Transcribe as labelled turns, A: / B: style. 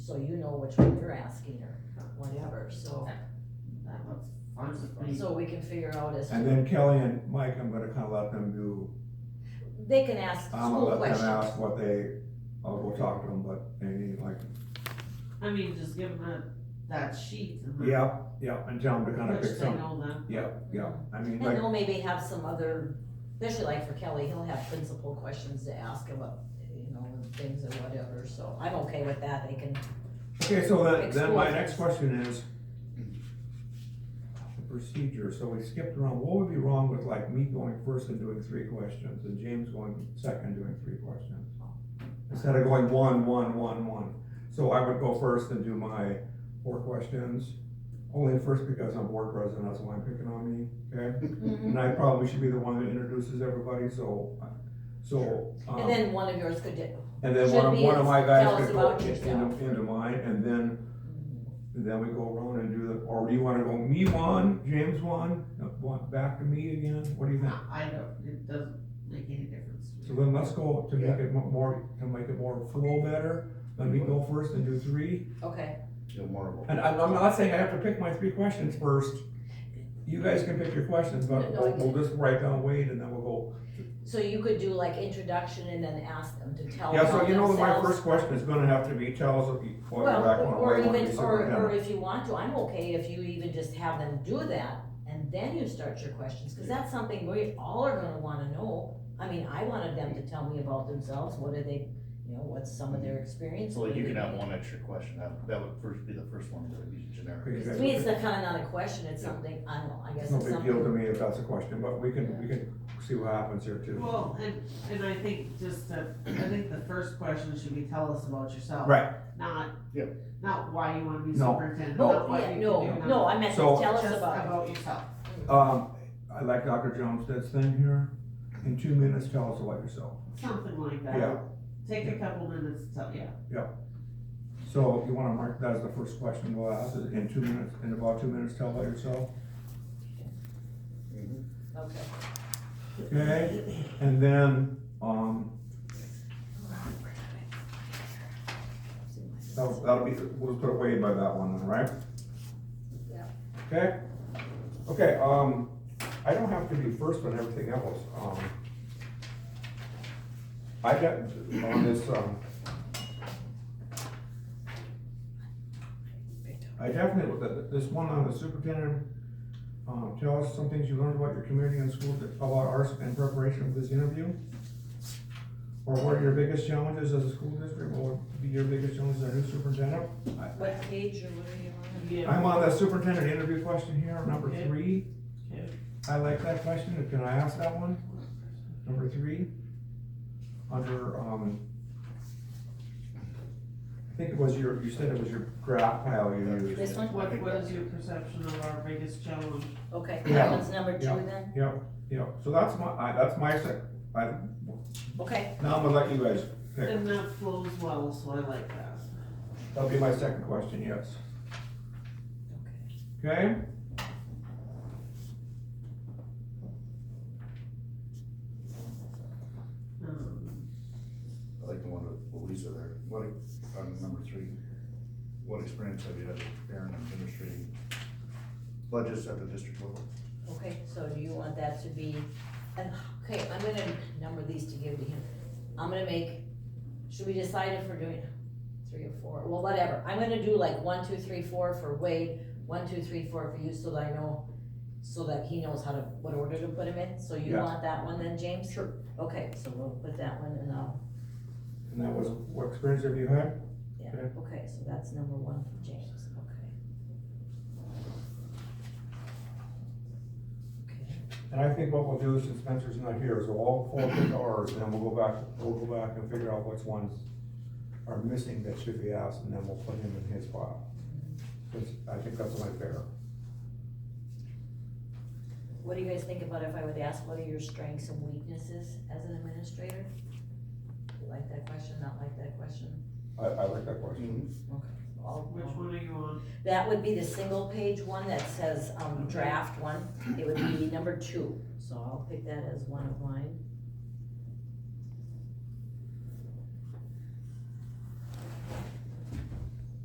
A: so you know which one you're asking or whatever, so,
B: That looks fun to me.
A: so we can figure out as
C: And
A: to,
C: then Kelly and Mike, I'm gonna kind of let them do,
A: they can ask
C: I'm gonna
A: school
C: let them
A: questions.
C: ask what they, I'll go talk to them, but they need like,
B: I mean, just give them that, that sheet and then.
C: yep, yep, and tell them to kind of pick
B: Which they
C: some,
B: know then.
C: yep, yep. I mean,
A: And
C: like,
A: they'll maybe have some other, especially like for Kelly, he'll have principal questions to ask about, you know, things and whatever, so I'm okay with that, they can,
C: okay, so then, then my
A: Explore.
C: next question is the procedure, so we skipped around, what would be wrong with like me going first and doing three questions, and James going second, doing three questions? Instead of going one, one, one, one, so I would go first and do my four questions, only first because I'm board president, that's why I'm picking on me, okay?
A: Mm-hmm.
C: And I probably should be the one that introduces everybody, so, so,
A: and
C: um,
A: then one of yours could, di-
C: and then one of,
A: should be
C: one of my
A: tell
C: guys
A: us
C: could go
A: about
C: in-
A: yourself.
C: into, into mine, and then, then we go around and do the, or do you wanna go me one, James one, uh, one, back to me again, what do you think?
B: I don't, it doesn't make any difference.
C: So then let's go to make it mo- more, to make it more flow better, let me go first and do three,
A: okay,
D: Feel more
C: and I'm, I'm not saying I have to pick my three questions first. You guys can pick your questions, but
A: No, I-
C: we'll we'll just write down Wade and then we'll go
A: so you could do like introduction and then ask them to tell
C: Yeah, so
A: about
C: you know, my
A: themselves.
C: first question is gonna have to be, tell us what you, what
A: Well,
C: you're back on,
A: or
C: why you want to be
A: even, or, or
C: superintendent.
A: if you want to, I'm okay if you even just have them do that, and then you start your questions, cause that's something we all are gonna wanna know. I mean, I wanted them to tell me about themselves, what are they, you know, what's some of their experience?
D: So you can have one extra question, that, that would first be the first one, that would be generic.
C: Okay,
A: To me, it's
C: guys,
A: not kinda not a question, it's something, I don't know, I guess
C: It's no
A: it's
C: big deal to
A: something.
C: me if that's a question, but we can, we can see what happens here too.
B: Well, and, and I think just to, I think the first question should be tell us about yourself.
C: Right.
B: Not.
D: Yeah.
B: Not why you wanna be
C: No.
B: superintendent, not
A: No,
B: what you
A: Oh, yeah,
B: can
A: no,
B: do. not-
A: no, I meant to
C: So-
A: tell us
B: Just
A: about
B: about yourself.
C: Um, I like Dr. Jones' thing here, in two minutes, tell us about yourself.
B: Something like that.
C: Yeah.
B: Take a couple minutes to tell, yeah.
C: So you wanna mark that as the first question we'll ask, is in two minutes, in about two minutes, tell about yourself,
A: it, okay.
C: okay? And then, um, that'll, that'll be, we'll put away by that one then, right?
A: Yeah.
C: Okay, okay, um, I don't have to be first on everything else, um. I got, on this, um, I definitely, th- this one on the superintendent, um, tell us some things you learned about your community and school that about ours in preparation for this interview. Or what are your biggest challenges as a school district, what would be your biggest challenges as a new superintendent?
A: What page or what are you on?
C: I'm on the superintendent interview question here, number
B: Okay.
C: three.
B: Okay.
C: I like that question, can I ask that one? Number three, under, um, I think it was your, you said it was your graph pile you used.
A: This one?
B: What, what is your perception of our biggest challenge?
A: Okay,
C: Yeah.
A: that one's number two
C: Yeah.
A: then,
C: Yep, yep, so that's my, I, that's my sec, I,
A: okay,
C: now I'm gonna let you guys pick,
B: And that flows well, so I like that.
C: that'll be my second question, yes,
A: okay.
C: okay?
B: Um,
D: I like the one with Louisa there, what, on number three, what experience have you had preparing and administrating budgets at the district level?
A: Okay, so do you want that to be, and, okay, I'm gonna number these to give to him. I'm gonna make, should we decide if we're doing three or four, well, whatever, I'm gonna do like one, two, three, four for Wade, one, two, three, four for you, so that I know, so that he knows how to, what order to put him in, so you
C: Yeah.
A: want that one then, James? Sure. Okay, so we'll put that one and I'll,
C: And that was, what experience have you had?
A: yeah,
C: Okay.
A: okay, so that's number one for James, okay. Okay.
C: And I think what we'll do, since Spencer's not here, is we'll all four pick ours, and then we'll go back, we'll go back and figure out which ones are missing that should be asked, and then we'll put him in his file. Which, I think that's my fair.
A: What do you guys think about if I would ask, what are your strengths and weaknesses as an administrator? Like that question, not like that question?
C: I, I like that question.
A: All-
B: Which one are you on?
A: That would be the single page one that says, um, draft one, it would be number two, so I'll pick that as one of mine.